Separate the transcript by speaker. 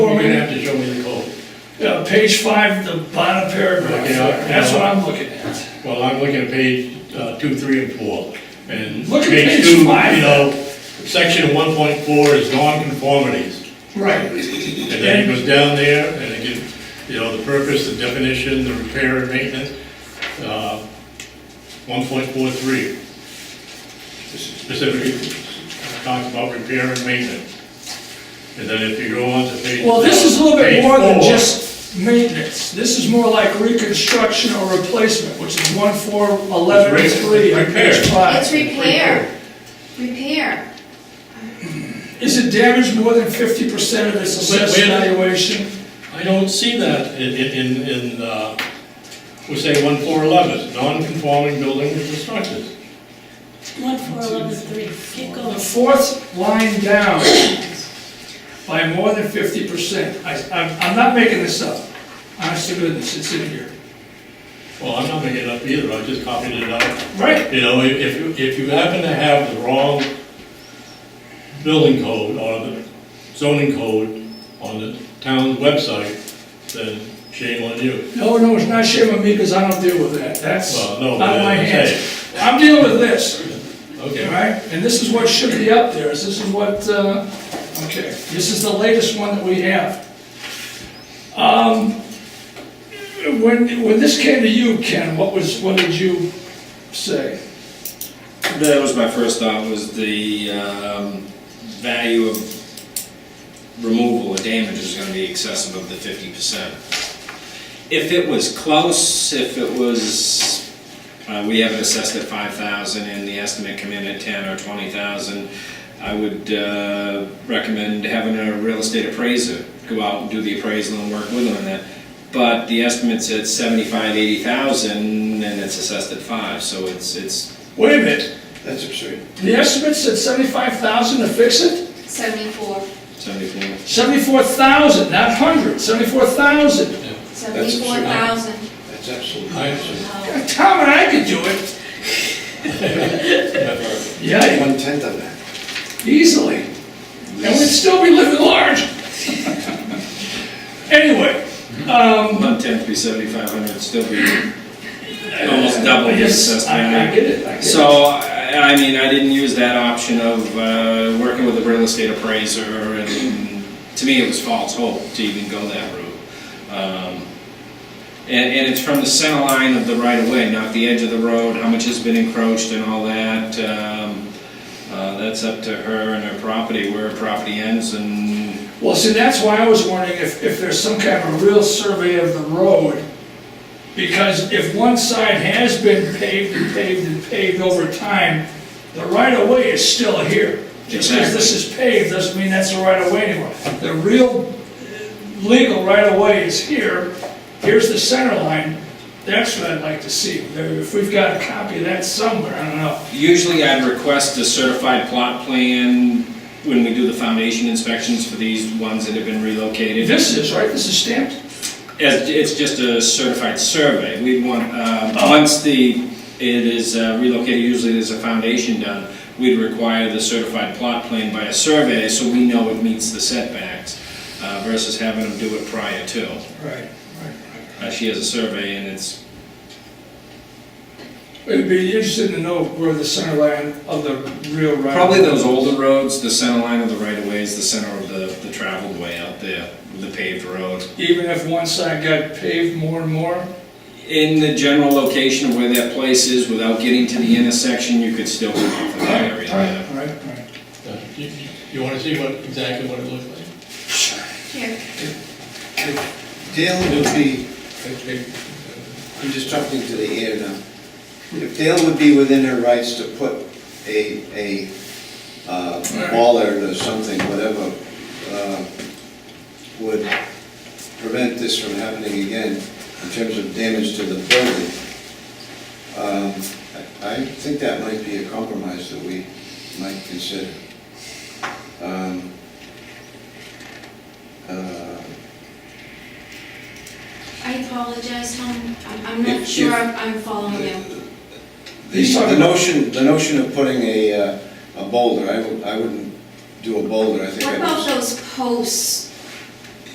Speaker 1: uh, page five, the bottom paragraph,
Speaker 2: Yeah, I-
Speaker 1: that's what I'm looking at.
Speaker 2: Well, I'm looking at page uh, two, three, and four, and.
Speaker 1: Look at page
Speaker 2: two,
Speaker 1: five.
Speaker 2: You know, section one point four is nonconformities,
Speaker 1: Right.
Speaker 2: and then it goes down there, and it gives, you know, the purpose, the definition, the repair and maintenance, uh, one point four three. Specifically talks about repair and maintenance. And then if you go on to page.
Speaker 1: Well, this is a little bit
Speaker 2: page
Speaker 1: more than
Speaker 2: four,
Speaker 1: just maintenance, this is more like reconstruction or replacement, which is one four eleven
Speaker 2: It's re-
Speaker 1: three on page
Speaker 2: repair.
Speaker 1: five.
Speaker 3: It's repair, repair.
Speaker 1: Is it damaged more than fifty percent of its assessed
Speaker 2: Wait, wait.
Speaker 1: valuation?
Speaker 2: I don't see that in, in, in, in, uh, we say one four eleven, non-conforming buildings and structures.
Speaker 4: One, four, eleven, three, keep
Speaker 1: The
Speaker 4: going.
Speaker 1: fourth line down, by more than fifty percent, I, I'm, I'm not making this up, honest to goodness, it's in here.
Speaker 2: Well, I'm not making it up either, I just copied it out.
Speaker 1: Right,
Speaker 2: You know, if- if, you- if you happen to have the wrong building code or the zoning code on the town's website, then shame on you.
Speaker 1: no, no, it's not shame on me, because I don't deal with that, that's
Speaker 2: Well,
Speaker 1: not
Speaker 2: no, but
Speaker 1: my
Speaker 2: I'm
Speaker 1: hands. I'm dealing with this, all
Speaker 2: Okay,
Speaker 1: right, and this is what should be up there, this is what, uh, okay, this is the latest one that we have. Um, when, when this came to you, Ken, what was, what did you say?
Speaker 5: That was my first thought, was the um, value of removal or damage is gonna be excessive of the fifty percent. If it was close, if it was, uh, we have it assessed at five thousand and the estimate come in at ten or twenty thousand, I would uh, recommend having a real estate appraiser go out and do the appraisal and work with them on that. But the estimate's at seventy-five, eighty thousand, and it's assessed at five, so it's, it's
Speaker 1: Wait a minute,
Speaker 6: That's absurd.
Speaker 1: The estimate said seventy-five thousand to fix it?
Speaker 3: Seventy-four,
Speaker 5: 74.
Speaker 1: Seventy-four thousand, not hundred, seventy-four thousand.
Speaker 3: seventy-four thousand.
Speaker 6: That's absolutely
Speaker 2: I,
Speaker 6: absurd.
Speaker 1: Tom and I could do it. Yeah,
Speaker 6: One tenth of that.
Speaker 1: easily. And we'd still be living large. Anyway,
Speaker 5: One tenth be seventy-five hundred, still be almost double
Speaker 1: I
Speaker 5: the
Speaker 1: guess, I, I
Speaker 5: assessment.
Speaker 1: get it, I get it.
Speaker 5: So, I I mean, I didn't use that option of uh, working with a real estate appraiser, and to me, it was false hope to even go that route. Um, And, and it's from the center line of the right-of-way, not the edge of the road, how much has been encroached and all that. Um, uh, That's up to her and her property, where her property ends, and
Speaker 1: Well, see, that's why I was wondering if, if there's some kind of a real survey of the road. Because if one side has been paved and paved and paved over time, the right of way is still here. Just because this is paved doesn't mean that's the right of way anymore. The real uh, legal right of way is here, here's the center line. That's what I'd like to see. There- If we've got a copy of that somewhere, I don't know.
Speaker 5: Usually I'd request a certified plot plan when we do the foundation inspections for these ones that have been relocated.
Speaker 1: This is, right, this is stamped?
Speaker 5: As- It's just a certified survey. We'd want, uh, once the, it is uh, relocated, usually there's a foundation done, we'd require the certified plot plan by a survey so we know it meets the setbacks uh, versus having them do it prior to.
Speaker 1: Right, right.
Speaker 5: Uh, She has a survey and it's,
Speaker 1: It'd be interesting to know where the center line of the real right.
Speaker 5: probably those older roads, the center line of the right of way is the center of the the traveled way out there, the paved road.
Speaker 1: Even if one side got paved more and more,
Speaker 5: in the general location of where that place is, without getting to the intersection, you could still come off of that area.
Speaker 1: all right, all right.
Speaker 2: uh, you, you- you wanna see what, exactly what it looks like?
Speaker 3: Here,
Speaker 6: Dale would be, I'm just talking to the air now. If Dale would be within her rights to put a, a uh, wall art or something, whatever, uh, would prevent this from happening again in terms of damage to the building, um, I I think that might be a compromise that we might consider. Um, uh,
Speaker 3: I apologize, Tom, I'm- I'm
Speaker 6: If-
Speaker 3: not
Speaker 6: if-
Speaker 3: sure I'm I'm following you.
Speaker 6: The the notion, the notion of putting a, uh, a boulder, I wou- I wouldn't do a boulder, I think
Speaker 3: What
Speaker 6: I'd
Speaker 3: about
Speaker 6: just...
Speaker 3: those posts